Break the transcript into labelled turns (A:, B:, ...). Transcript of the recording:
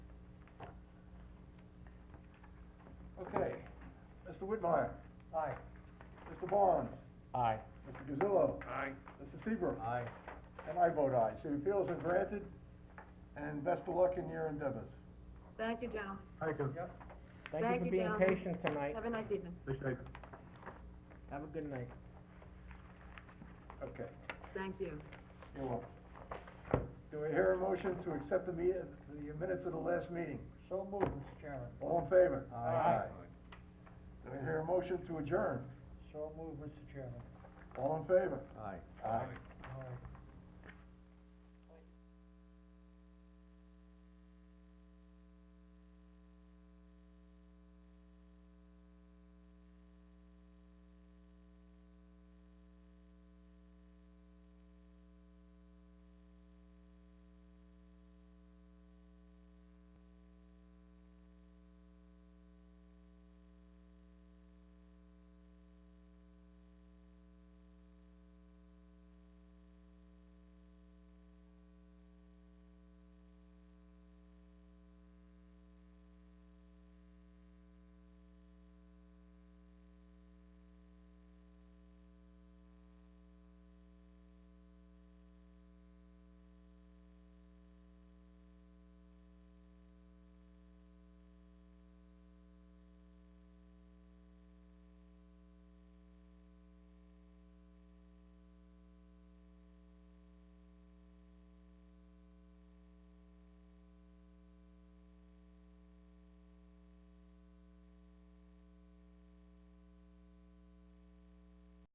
A: Mr. Whitmire,
B: Aye.
A: Mr. Barnes,
B: Aye.
A: Mr. Gazillo,
C: Aye.
A: Mr. Seabrook.
B: Aye.
A: And I vote aye. So your appeals are granted, and best of luck in your endeavors.
D: Thank you, gentlemen.
B: Yep. Thank you for being
D: gentlemen.
B: patient tonight.
D: Have a nice evening.
B: Have a good night.
A: Okay,
D: Thank you.
A: you're welcome. Do I hear a motion to accept the me, the minutes of the last meeting?
B: So moved, Mr. Chairman.
A: All in favor?
B: Aye. Aye.
A: Do I hear a motion to adjourn?
B: So moved, Mr. Chairman.
A: All in favor?
C: Aye.
A: Aye.
B: Aye.